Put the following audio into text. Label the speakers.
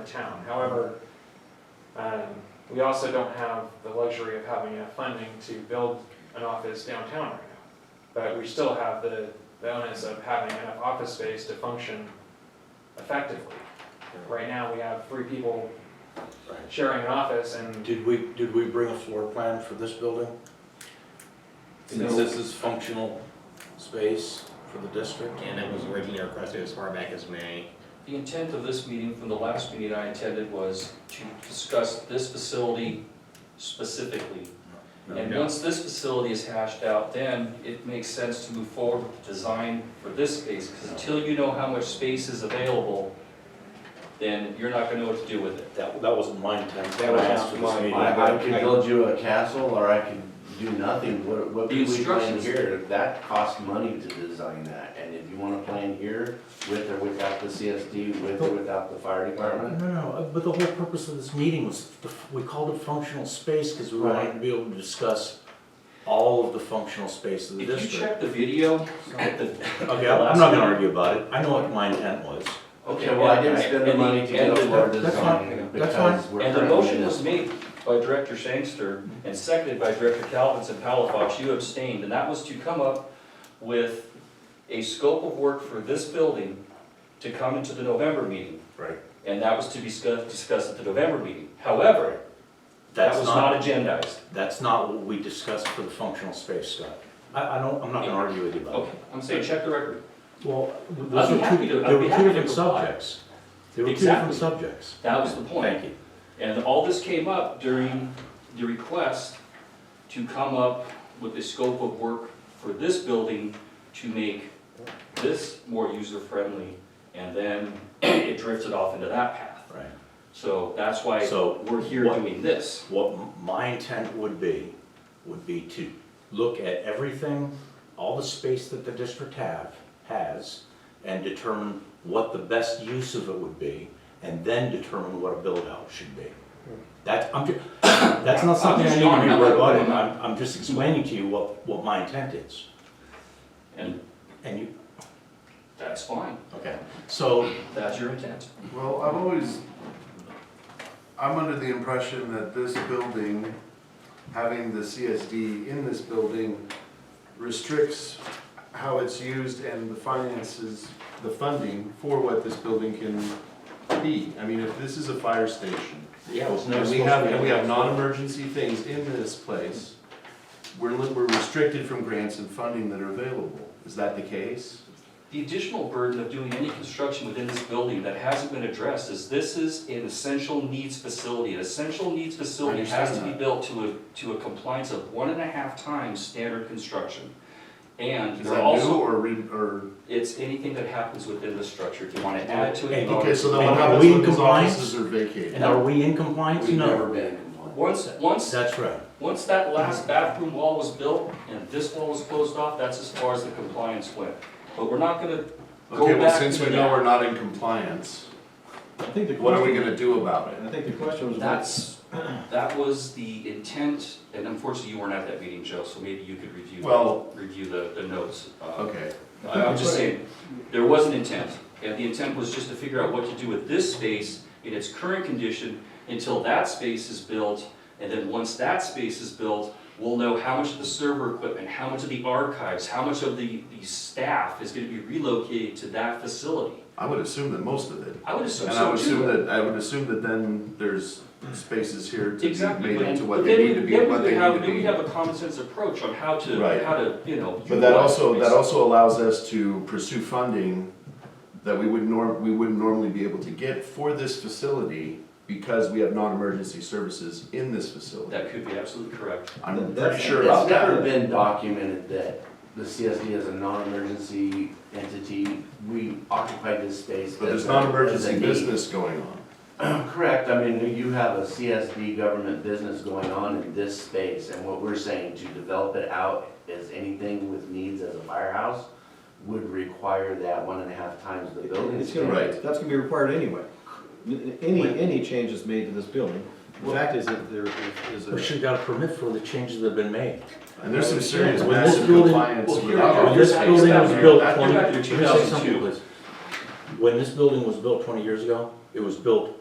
Speaker 1: the town. However, um, we also don't have the luxury of having enough funding to build an office downtown right now. But we still have the, the onus of having enough office space to function effectively. Right now, we have three people
Speaker 2: Right.
Speaker 1: sharing an office and
Speaker 2: Did we, did we bring a floor plan for this building? Since
Speaker 3: No.
Speaker 2: this is functional space for the district?
Speaker 3: And it was originally requested as far back as May.
Speaker 4: The intent of this meeting from the last meeting I attended was to discuss this facility specifically. And
Speaker 3: Yeah.
Speaker 4: once this facility is hashed out, then it makes sense to move forward with the design for this space. Because until you know how much space is available, then you're not gonna know what to do with it.
Speaker 2: That, that wasn't my intent.
Speaker 5: That was
Speaker 2: I asked for this
Speaker 5: mine.
Speaker 2: meeting.
Speaker 5: I, I could build you a castle, or I could do nothing, what, what
Speaker 4: The
Speaker 5: could we plan
Speaker 4: instructions-
Speaker 5: here? That costs money to design that, and if you wanna plan here, with or without the CSD, with or without the fire
Speaker 2: No,
Speaker 5: department,
Speaker 2: no, uh, but the whole purpose of this meeting was, the f- we called it functional space because we wanted to be able to discuss all of the functional space of the
Speaker 4: If you
Speaker 2: district.
Speaker 4: check the video at the.
Speaker 2: Okay, I'm not gonna argue about it. I know what my intent was.
Speaker 5: okay, well, I didn't
Speaker 4: and-
Speaker 5: spend the
Speaker 4: and
Speaker 5: money to get
Speaker 4: and
Speaker 5: a
Speaker 4: the-
Speaker 5: floor
Speaker 2: that's
Speaker 5: design,
Speaker 2: fine. That's fine.
Speaker 5: because we're.
Speaker 4: And the
Speaker 5: currently
Speaker 4: motion
Speaker 5: in
Speaker 4: was made by Director Sangster and seconded by Director Calvins and Palafox, you abstained, and that was to come up with a scope of work for this building to come into the November meeting.
Speaker 2: Right.
Speaker 4: And that was to be discussed, discussed at the November meeting. However, that
Speaker 2: That's
Speaker 4: was
Speaker 2: not,
Speaker 4: not agendized.
Speaker 2: that's not what we discussed for the functional space, Scott. I, I don't, I'm not gonna argue with you about it.
Speaker 4: Okay, I'm saying check the record.
Speaker 2: Well,
Speaker 4: I'd
Speaker 2: those
Speaker 4: be
Speaker 2: were
Speaker 4: happy to-
Speaker 2: two,
Speaker 4: I'd
Speaker 2: there
Speaker 4: be
Speaker 2: were
Speaker 4: happy
Speaker 2: two
Speaker 4: to
Speaker 2: different
Speaker 4: comply.
Speaker 2: subjects. There were two
Speaker 4: Exactly.
Speaker 2: different subjects.
Speaker 4: That was the point.
Speaker 2: Thank you.
Speaker 4: And all this came up during the request to come up with a scope of work for this building to make this more user-friendly, and then it drifted off into that path.
Speaker 2: Right.
Speaker 4: So that's why
Speaker 2: So
Speaker 4: we're here
Speaker 2: what-
Speaker 4: doing this.
Speaker 2: What m- my intent would be, would be to look at everything, all the space that the district have, has, and determine what the best use of it would be, and then determine what a build-out should be. That's, I'm, ju- that's not something I
Speaker 4: just
Speaker 2: need to be
Speaker 4: throwing it out
Speaker 2: about,
Speaker 4: there.
Speaker 2: I'm, I'm just explaining to you what, what my intent is.
Speaker 4: And
Speaker 2: And you,
Speaker 4: that's fine,
Speaker 2: okay, so,
Speaker 4: that's your intent.
Speaker 6: Well, I've always, I'm under the impression that this building, having the CSD in this building restricts how it's used and the finances, the funding for what this building can be. I mean, if this is a fire station,
Speaker 2: yeah, it was never
Speaker 6: and we
Speaker 2: supposed
Speaker 6: have,
Speaker 2: to be.
Speaker 6: and we have non-emergency things in this place, we're, li- we're restricted from grants and funding that are available. Is that the case?
Speaker 4: The additional burden of doing any construction within this building that hasn't been addressed is this is an essential needs facility. An essential needs facility has to
Speaker 6: understand
Speaker 4: be
Speaker 6: that.
Speaker 4: built to a, to a compliance of one and a half times standard construction. And
Speaker 6: Is
Speaker 4: they're
Speaker 6: that new
Speaker 4: also,
Speaker 6: or re, or?
Speaker 4: it's anything that happens within the structure, if you wanna add to it.
Speaker 2: Hey,
Speaker 6: Okay, so then
Speaker 2: Are
Speaker 6: what
Speaker 2: we
Speaker 6: happens
Speaker 2: in
Speaker 6: when these
Speaker 2: compliance?
Speaker 6: offices are vacated?
Speaker 2: And are we in
Speaker 5: this-
Speaker 2: compliance?
Speaker 5: We've never
Speaker 2: No.
Speaker 5: been in compliance.
Speaker 4: Once, once,
Speaker 2: That's right.
Speaker 4: once that last bathroom wall was built and this wall was closed off, that's as far as the compliance went. But we're not gonna go
Speaker 6: Okay, well,
Speaker 4: back
Speaker 6: since
Speaker 4: to
Speaker 6: we know
Speaker 4: that.
Speaker 6: we're not in compliance,
Speaker 7: I think the
Speaker 6: what are we
Speaker 7: question,
Speaker 6: gonna do about it?
Speaker 7: I think the question was, what-
Speaker 4: That's, that was the intent, and unfortunately, you weren't at that meeting, Joe, so maybe you could review,
Speaker 6: Well-
Speaker 4: review the, the notes. Uh,
Speaker 6: Okay,
Speaker 4: I- I'm just saying, there was an intent, and the intent was just to figure out what to do with this space in its current condition until that space is built, and then once that space is built, we'll know how much of the server equipment, how much of the archives, how much of the, the staff is gonna be relocated to that facility.
Speaker 6: I would assume that most of it,
Speaker 4: I would assume
Speaker 6: and I
Speaker 4: so
Speaker 6: would assume
Speaker 4: too.
Speaker 6: that, I would assume that then there's spaces here to be
Speaker 4: Exactly,
Speaker 6: made
Speaker 4: but
Speaker 6: into
Speaker 4: and-
Speaker 6: what
Speaker 4: but
Speaker 6: they
Speaker 4: then we,
Speaker 6: need to be,
Speaker 4: then
Speaker 6: and
Speaker 4: we
Speaker 6: what they
Speaker 4: would have, then we
Speaker 6: need
Speaker 4: have
Speaker 6: to
Speaker 4: a
Speaker 6: be.
Speaker 4: common sense approach on how to,
Speaker 6: Right.
Speaker 4: how to, you know.
Speaker 6: But that
Speaker 4: utilize
Speaker 6: also,
Speaker 4: space.
Speaker 6: that also allows us to pursue funding that we would norm, we wouldn't normally be able to get for this facility because we have non-emergency services in this facility.
Speaker 4: That could be absolutely correct.
Speaker 6: I'm pretty
Speaker 5: That's-
Speaker 6: sure about that.
Speaker 5: It's never been documented that the CSD is a non-emergency entity, we occupy this space.
Speaker 6: But
Speaker 5: as
Speaker 6: there's
Speaker 5: a- as
Speaker 6: non-emergency
Speaker 5: a need.
Speaker 6: business going on.
Speaker 5: Correct, I mean, you have a CSD government business going on in this space, and what we're saying to develop it out as anything with needs as a firehouse would require that one and a half times the building
Speaker 7: it's gonna,
Speaker 6: Right.
Speaker 7: that's gonna be required anyway. N- n- Any, any changes made to this building, the fact is that there is
Speaker 2: We
Speaker 7: a.
Speaker 2: should have got a permit for the changes that have been made.
Speaker 6: And there's some serious
Speaker 2: When this
Speaker 6: massive
Speaker 2: building-
Speaker 6: compliance
Speaker 4: well,
Speaker 6: with
Speaker 4: here-
Speaker 6: our
Speaker 2: When this
Speaker 4: You're
Speaker 2: building
Speaker 4: back
Speaker 2: was
Speaker 4: to-
Speaker 2: built
Speaker 4: back to
Speaker 2: twenty,
Speaker 4: 2002.
Speaker 2: let me say something, please. When this building was built twenty years ago, it was built